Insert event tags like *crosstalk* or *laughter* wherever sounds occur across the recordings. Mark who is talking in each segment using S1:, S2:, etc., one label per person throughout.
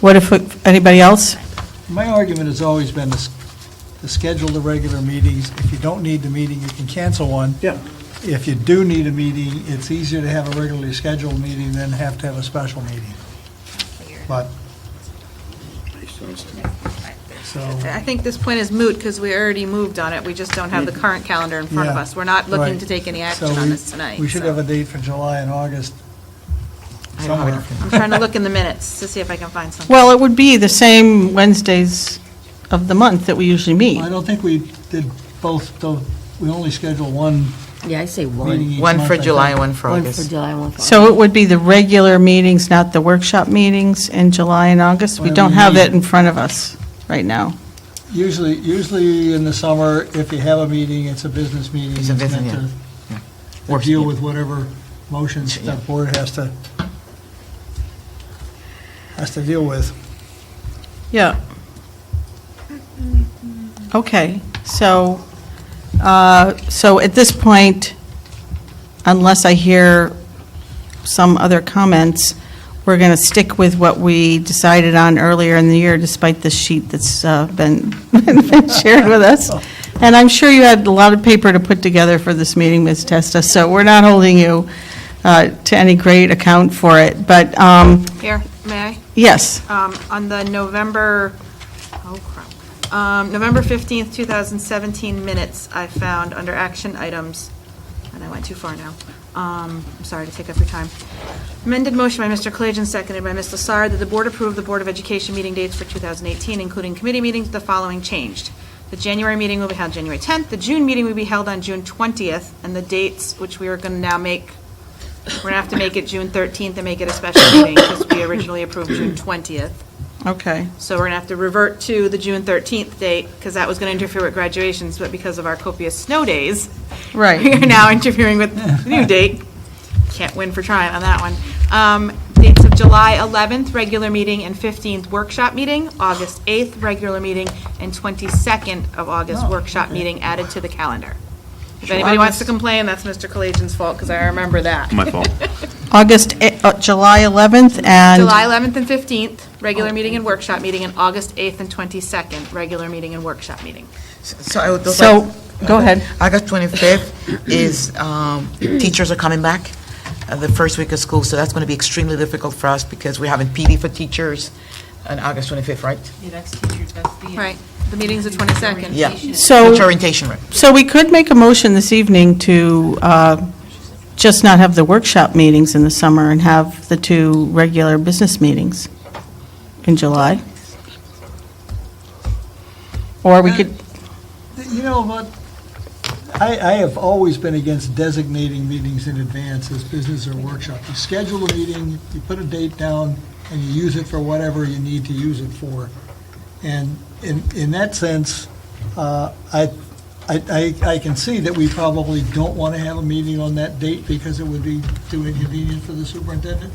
S1: What if, anybody else?
S2: My argument has always been to s- to schedule the regular meetings. If you don't need the meeting, you can cancel one.
S3: Yeah.
S2: If you do need a meeting, it's easier to have a regularly scheduled meeting than have to have a special meeting. But, so,
S4: I think this point is moot because we already moved on it. We just don't have the current calendar in front of
S2: Yeah,
S4: us. We're not looking
S2: right.
S4: to take any
S2: so
S4: action on
S2: we-
S4: this tonight.
S2: we should
S4: so.
S2: have a date for July and August
S4: I don't know.
S2: somewhere.
S4: I'm trying to look in the minutes to see if I can find something.
S1: Well, it would be the same Wednesdays of the month that we usually meet.
S2: I don't think we did both, though, we only scheduled one
S5: Yeah, I say
S2: meeting
S5: one.
S2: each
S6: One
S2: month,
S6: for
S2: I think.
S6: July, one for
S5: One for
S6: August.
S5: July, one for.
S1: So it would be the regular meetings, not the workshop meetings in July and August. We don't have it in front of us right now.
S2: Usually, usually in the summer, if you have a meeting, it's a business meeting.
S6: It's a business,
S2: meant to- to
S6: Works,
S2: deal
S6: yeah.
S2: with whatever motions
S6: Yeah.
S2: that board has to, has to deal with.
S1: Yeah. Okay, so, uh, so at this point, unless I hear some other comments, we're going to stick with what we decided on earlier in the year despite the sheet that's uh, been *laughs* been shared with us. And I'm sure you had a lot of paper to put together for this meeting, Ms. Testa, so we're not holding you uh, to any great account for it. But, um,
S4: Here, may
S1: yes,
S4: I? Um, On the November, oh crap, Um, November 15th, 2017 minutes I found under action items, and I went too far now. Um, I'm sorry to take up your time. Amended motion by Mr. Collagen, seconded by Ms. Lassard, that the board approve the Board of Education meeting dates for 2018, including committee meetings, with the following changed. The January meeting will be held January 10th, the June meeting will be held on June 20th, and the dates, which we are going to now make We're gonna have to make it June 13th and make it a special meeting, because we originally approved June 20th.
S1: okay.
S4: So we're gonna have to revert to the June 13th date, because that was gonna interfere with graduations, but because of our copious snow days.
S1: Right.
S4: We are now interfering with the new date. Can't win for trying on that one. Um, Dates of July 11th, regular meeting, and 15th, workshop meeting, August 8th, regular meeting, and 22nd of August, workshop meeting added to the calendar. If anybody wants to complain, that's Mr. Collagen's fault, because I remember that.
S3: My fault.
S1: August, e- uh, July 11th and... Oh.
S4: July 11th and 15th, regular meeting and workshop meeting, and August 8th and 22nd, regular meeting and workshop meeting.
S6: So I would just
S1: So,
S6: like-
S1: go ahead.
S6: August 25th is, um, teachers are coming back uh, the first week of school, so that's going to be extremely difficult for us because we're having PD for teachers on August 25th, right?
S4: Right, the meeting's the 22nd.
S6: Yeah.
S1: So-
S6: Teacher orientation, right?
S1: So we could make a motion this evening to uh, just not have the workshop meetings in the summer and have the two regular business meetings in July. Or we could,
S2: You know, what? I, I have always been against designating meetings in advance as business or workshop. You schedule a meeting, you put a date down, and you use it for whatever you need to use it for. And in, in that sense, uh, I, I, I I can see that we probably don't want to have a meeting on that date because it would be too inconvenient for the superintendent,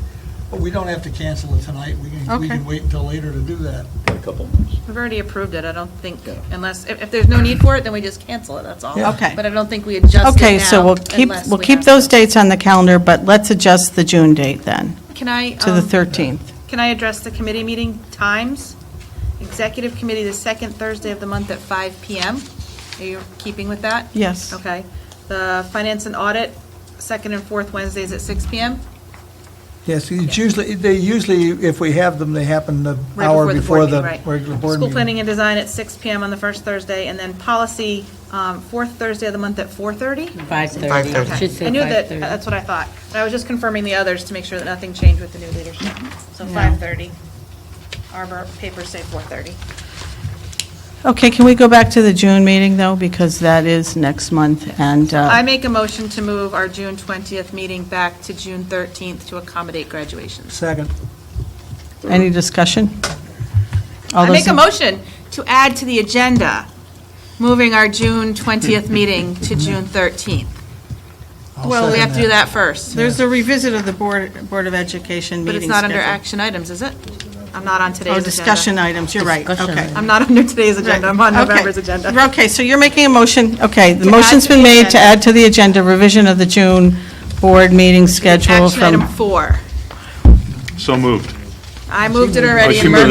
S2: but we don't have to cancel it tonight. We can, we
S1: Okay.
S2: can wait until later to do that.
S3: A couple months.
S4: We've already approved it, I don't think, unless, if, if there's no need for it, then we just cancel it, that's all.
S1: Yeah. Okay.
S4: But I don't think we adjust it now.
S1: okay, so we'll keep,
S4: unless
S1: we'll
S4: we
S1: keep
S4: have
S1: those
S4: to.
S1: dates on the calendar, but let's adjust the June date then,
S4: Can I?
S1: to the
S4: um,
S1: 13th.
S4: Can I address the committee meeting times? Executive committee, the second Thursday of the month at 5 PM. Are you keeping with that?
S1: Yes.
S4: Okay. The finance and audit, second and fourth Wednesdays at 6 PM?
S2: Yes, it's usually, they usually, if we have them, they happen the
S4: Right
S2: hour before
S4: board
S2: the
S4: meeting, right.
S2: regular board
S4: School
S2: meeting.
S4: planning and design at 6 PM on the first Thursday, and then policy, um, fourth Thursday of the month at 4:30?
S5: Five thirty.
S6: 5:30.
S5: Should
S4: I
S5: say
S4: knew that,
S5: five thirty.
S4: that's what I thought. I was just confirming the others to make sure that nothing changed with the new leadership. So 5:30. Arbor papers say 4:30.
S1: Okay, can we go back to the June meeting, though, because that is next month, and...
S2: Oh.
S1: uh,
S4: I make a motion to move our June 20th meeting back to June 13th to accommodate graduations.
S2: Second.
S1: Any discussion? All
S4: I
S1: those
S4: make a
S1: in-
S4: motion to add to the agenda, moving our June 20th meeting
S1: Mm-hmm.
S4: to June 13th.
S2: I'll
S4: Well, we
S2: second
S4: have to do that first,
S1: There's a revisit of the Board, Board of Education
S4: but
S1: meeting
S4: it's not under
S1: schedule.
S4: action items, is it? I'm not on today's
S1: Oh,
S4: agenda.
S1: discussion items, you're right,
S5: Discussion
S1: okay.
S5: items.
S4: I'm not *laughs* under today's agenda, I'm on
S1: Okay.
S4: November's agenda.
S1: Okay, so you're making a motion, okay, the
S4: To add
S1: motion's
S4: to
S1: been
S4: the
S1: made to
S4: agenda.
S1: add to the agenda revision of the June Board meeting schedule
S4: Action
S1: from...
S4: item four.
S3: So moved.
S4: I moved it already.
S3: she
S4: and
S3: moved
S4: Murphy